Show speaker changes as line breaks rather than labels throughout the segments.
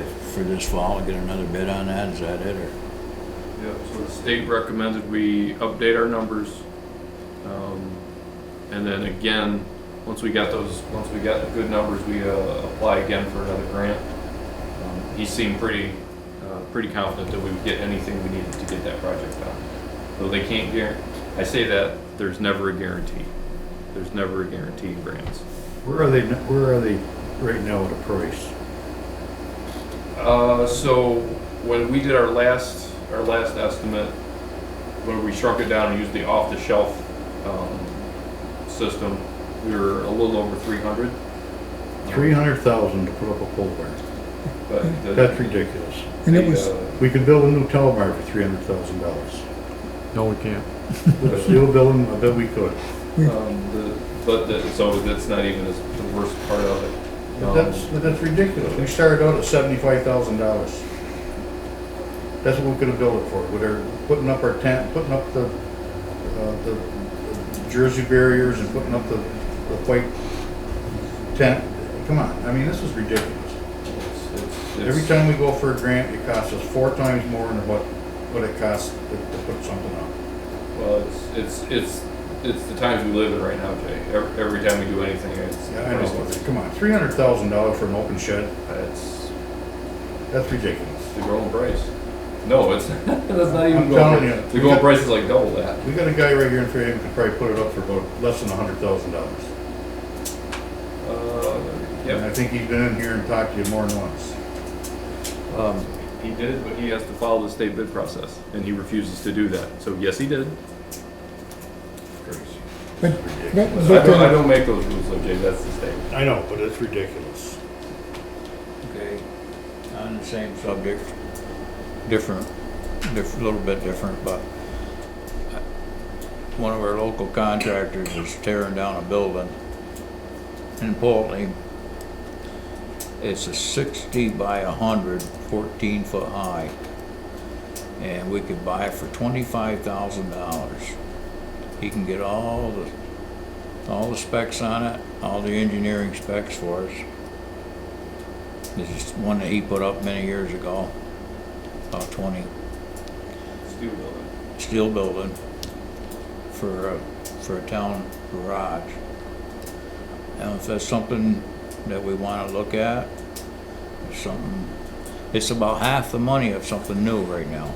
for this fall, get another bid on that, is that it, or?
Yeah, so the state recommended we update our numbers. Um, And then again, once we got those, once we got the good numbers, we uh, apply again for another grant. Um, He seemed pretty, uh, pretty confident that we would get anything we needed to get that project done. Though they can't guarantee, I say that, there's never a guarantee. There's never a guarantee in grants.
Where are they, where are they right now with the price?
Uh, so when we did our last, our last estimate, where we shrunk it down and used the off-the-shelf, um, system, we were a little over three hundred.
Three hundred thousand to put up a pole barn,
Um, But the-
that's ridiculous.
And it
the,
was,
uh,
We could build a new telemark for three hundred thousand dollars.
No, we can't.
With a steel building, I bet we could.
Um, the, but the, so that's not even as the worst part of it.
But
Um,
that's, but that's ridiculous. We started out at seventy-five thousand dollars. That's what we could have built it for, with our, putting up our tent, putting up the, uh, the jersey barriers and putting up the, the white tent. Come on, I mean, this is ridiculous.
it's- it's-
Every
it's-
time we go for a grant, it costs us four times more than what, what it costs to, to put something up.
Well, it's, it's, it's, it's the times we live in right now, Jay. Every, every time we do anything, it's.
Yeah, I know, come on, three hundred thousand dollars for an open shed,
It's,
that's ridiculous.
The going price. No, it's that's not
I'm
even
telling
going.
you.
The going price is like double that.
We got a guy right here in Fairhaven could probably put it up for about less than a hundred thousand dollars.
Uh,
And I
yeah,
think he's been in here and talked to you more than once.
um, he did, but he has to follow the state bid process, and he refuses to do that. So yes, he did.
Crazy.
but, but,
I
but
don't, I
the-
don't make those rules, though, Jay. That's the state.
I know, but it's ridiculous.
Okay, on the same subject, different, diff, a little bit different, but I- one of our local contractors is tearing down a building in Portland. It's a sixty by a hundred, fourteen foot high. And we could buy it for twenty-five thousand dollars. He can get all the, all the specs on it, all the engineering specs for us. This is one that he put up many years ago, about twenty,
Steel building.
steel building for a, for a town garage. And if that's something that we wanna look at, it's something, it's about half the money of something new right now.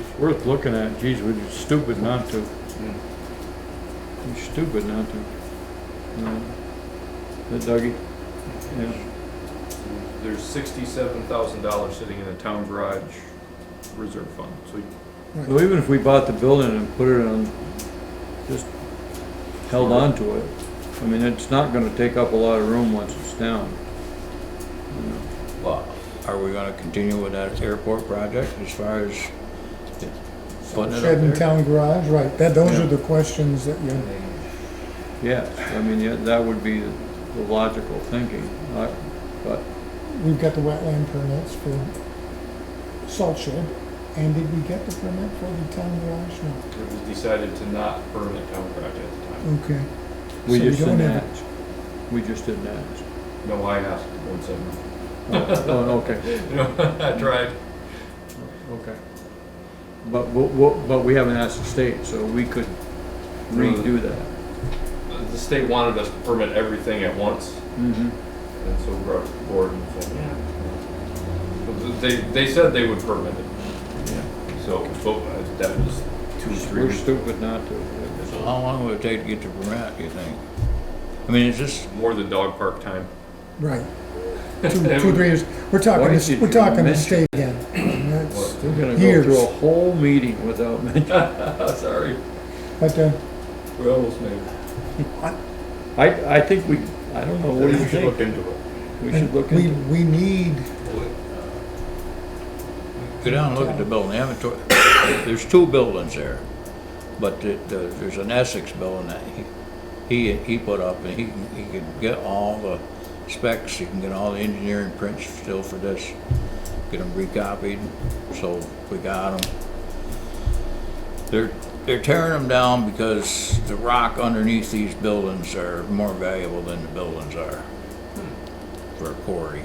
It's worth looking at. Geez, we're just stupid not to. We're stupid not to. No. That Dougie? Yeah.
There's sixty-seven thousand dollars sitting in the town garage reserve fund. So
So even if we bought the building and put it on, just held on to it, I mean, it's not gonna take up a lot of room once it's down. You know,
But are we gonna continue with that airport project as far as putting it
shed and
up there?
town garage, right, that, those
Yeah.
are the questions that you,
Yes, I mean, yeah, that would be the logical thinking, I- but
we've got the wetland permits for salt shed. And did we get the permit for the town garage? No,
it was decided to not burn the town garage at the time.
okay.
we
So we
just
don't
didn't
have-
ask. We just didn't ask.
No, I asked. the board said no.
Oh, oh, okay.
You know, I tried.
Okay. But, but, but- but we haven't asked the state, so we could redo that.
The state wanted us to permit everything at once.
Mm-hmm.
And so we brought it to the board and said, yeah. But They, they said they would permit it, so, but that was two, three
We're
weeks.
stupid not to.
So how long would it take to get the permit, you think? I mean, it's just,
More than dog park time.
Right. Two, two, three years, we're talking,
Why
this-
did
we're
you
talking the
mention-
state again. And that's-
We're gonna go
Years.
through a whole meeting without mentioning.
Sorry,
But, uh,
we almost made it.
I, I think we, I don't know, what do you
We should look
think?
into it.
We should look
we,
into it.
we need,
Go down and look at the building, They haven't tore- there's two buildings there, but the, the, there's an Essex building that he, he, he put up, and he, can- he can get all the specs, he can get all the engineering prints still for this, get them recopied, so we got them. They're, they're tearing them down because the rock underneath these buildings are more valuable than the buildings are for a quarry.